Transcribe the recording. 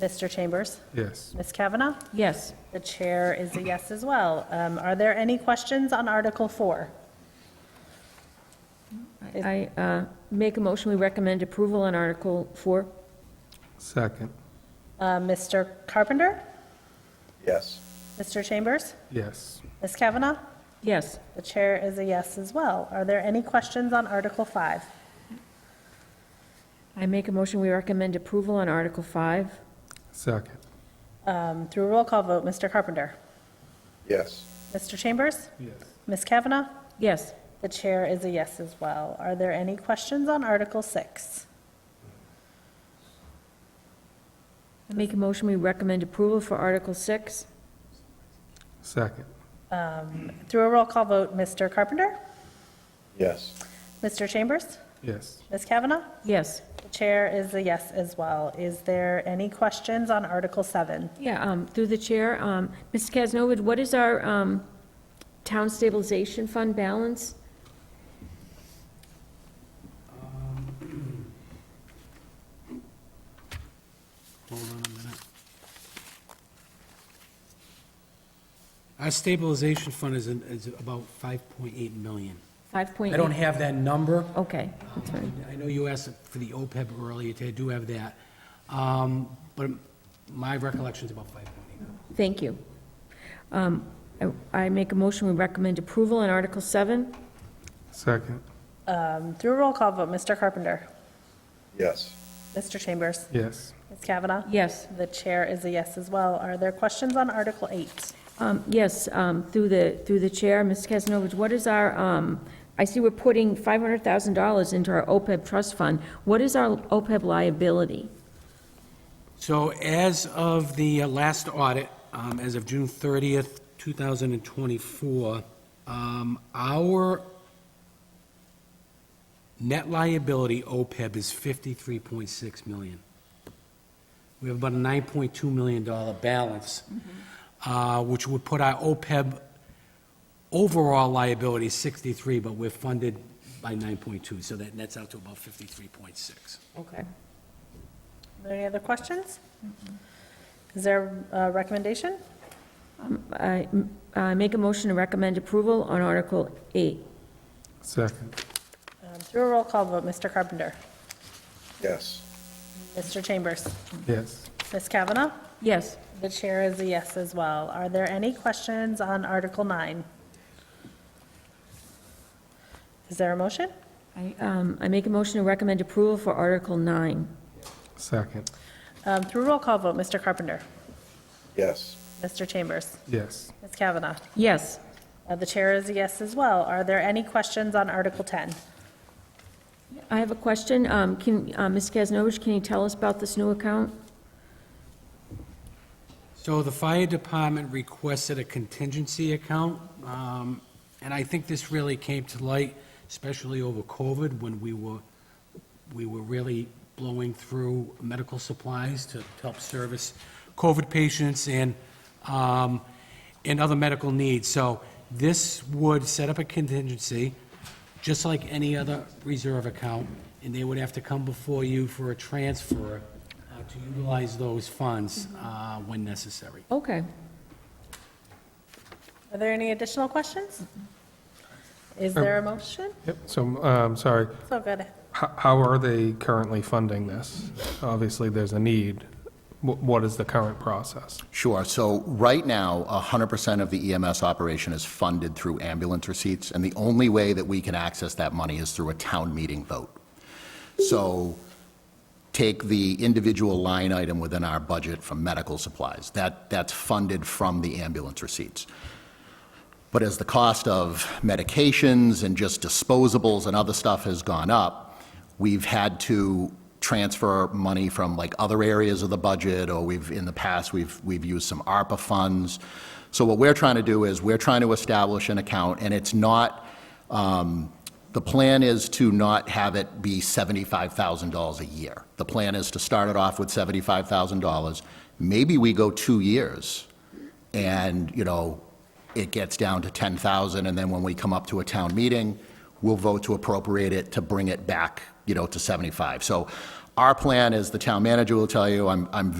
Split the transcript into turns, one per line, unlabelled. Mr. Chambers?
Yes.
Ms. Kavanaugh?
Yes.
The chair is a yes as well. Um, Are there any questions on Article 4?
I uh, make a motion, we recommend approval on Article 4.
Second.
Uh, Mr. Carpenter?
yes,
Mr. Chambers?
Yes.
Ms. Kavanaugh?
Yes.
The chair is a yes as well. Are there any questions on Article 5?
I make a motion, we recommend approval on Article 5.
Second.
Um, Through a roll call vote, Mr. Carpenter?
yes,
Mr. Chambers?
Yes.
Ms. Kavanaugh?
Yes.
The chair is a yes as well. Are there any questions on Article 6?
I make a motion, we recommend approval for Article 6.
Second.
Through a roll call vote, Mr. Carpenter?
yes,
Mr. Chambers?
Yes.
Ms. Kavanaugh?
Yes.
The chair is a yes as well. Is there any questions on Article 7?
Yeah, um, through the chair, um, Mr. Kaznowid, what is our um, town stabilization fund balance?
Hold on a minute. Our stabilization fund is, in- is about 5.8 million.
5.8?
I don't have that number.
Okay, that's fine.
I know you asked for the OPEB earlier, today. I do have that. Um, But my recollection is about 5.8 million.
Thank you. Um, I I make a motion, we recommend approval on Article 7.
Second.
Um, Through a roll call vote, Mr. Carpenter?
yes,
Mr. Chambers?
Yes.
Ms. Kavanaugh?
Yes.
The chair is a yes as well. Are there questions on Article 8?
Um, Yes, um, through the, through the chair, Ms. Kesnovich, what is our, um, I see we're putting $500,000 into our OPEB trust fund. What is our OPEB liability?
So as of the uh, last audit, um, as of June 30th, 2024, um, our net liability OPEB is 53.6 million. We have about a $9.2 million balance, uh, which would put our OPEB overall liability 63, but we're funded by 9.2, so that nets out to about 53.6.
Okay.
Are there any other questions? Is there a recommendation?
Um, I I make a motion to recommend approval on Article 8.
Second.
Um, Through a roll call vote, Mr. Carpenter?
yes,
Mr. Chambers?
Yes.
Ms. Kavanaugh?
Yes.
The chair is a yes as well. Are there any questions on Article 9? Is there a motion?
I um, I make a motion to recommend approval for Article 9.
Second.
Um, Through roll call vote, Mr. Carpenter.
yes,
Mr. Chambers.
Yes.
Ms. Kavanaugh.
Yes.
Uh, The chair is a yes as well. Are there any questions on Article 10?
I have a question. Um, Can, uh, Ms. Kesnovich, can you tell us about this new account?
So the fire department requested a contingency account, um, and I think this really came to light, especially over COVID, when we were, we were really blowing through medical supplies to help service COVID patients and, um, and other medical needs. So this would set up a contingency, just like any other reserve account, and they would have to come before you for a transfer uh, to utilize those funds uh, when necessary.
Okay.
Are there any additional questions? Is there a motion?
Yep. So, um, sorry,
So good.
H- how are they currently funding this? Obviously, there's a need. Wh- What is the current process?
Sure. So right now, 100% of the EMS operation is funded through ambulance receipts, and the only way that we can access that money is through a town meeting vote. So take the individual line item within our budget from medical supplies. That, that's funded from the ambulance receipts. But as the cost of medications and just disposables and other stuff has gone up, we've had to transfer money from like other areas of the budget, or we've, in the past, we've, we've used some ARPA funds. So what we're trying to do is, we're trying to establish an account, and it's not, um, the plan is to not have it be $75,000 a year. The plan is to start it off with $75,000. Maybe we go two years, and, you know, it gets down to 10,000, and then when we come up to a town meeting, we'll vote to appropriate it to bring it back, you know, to 75. So our plan, as the town manager will tell you, I'm, I'm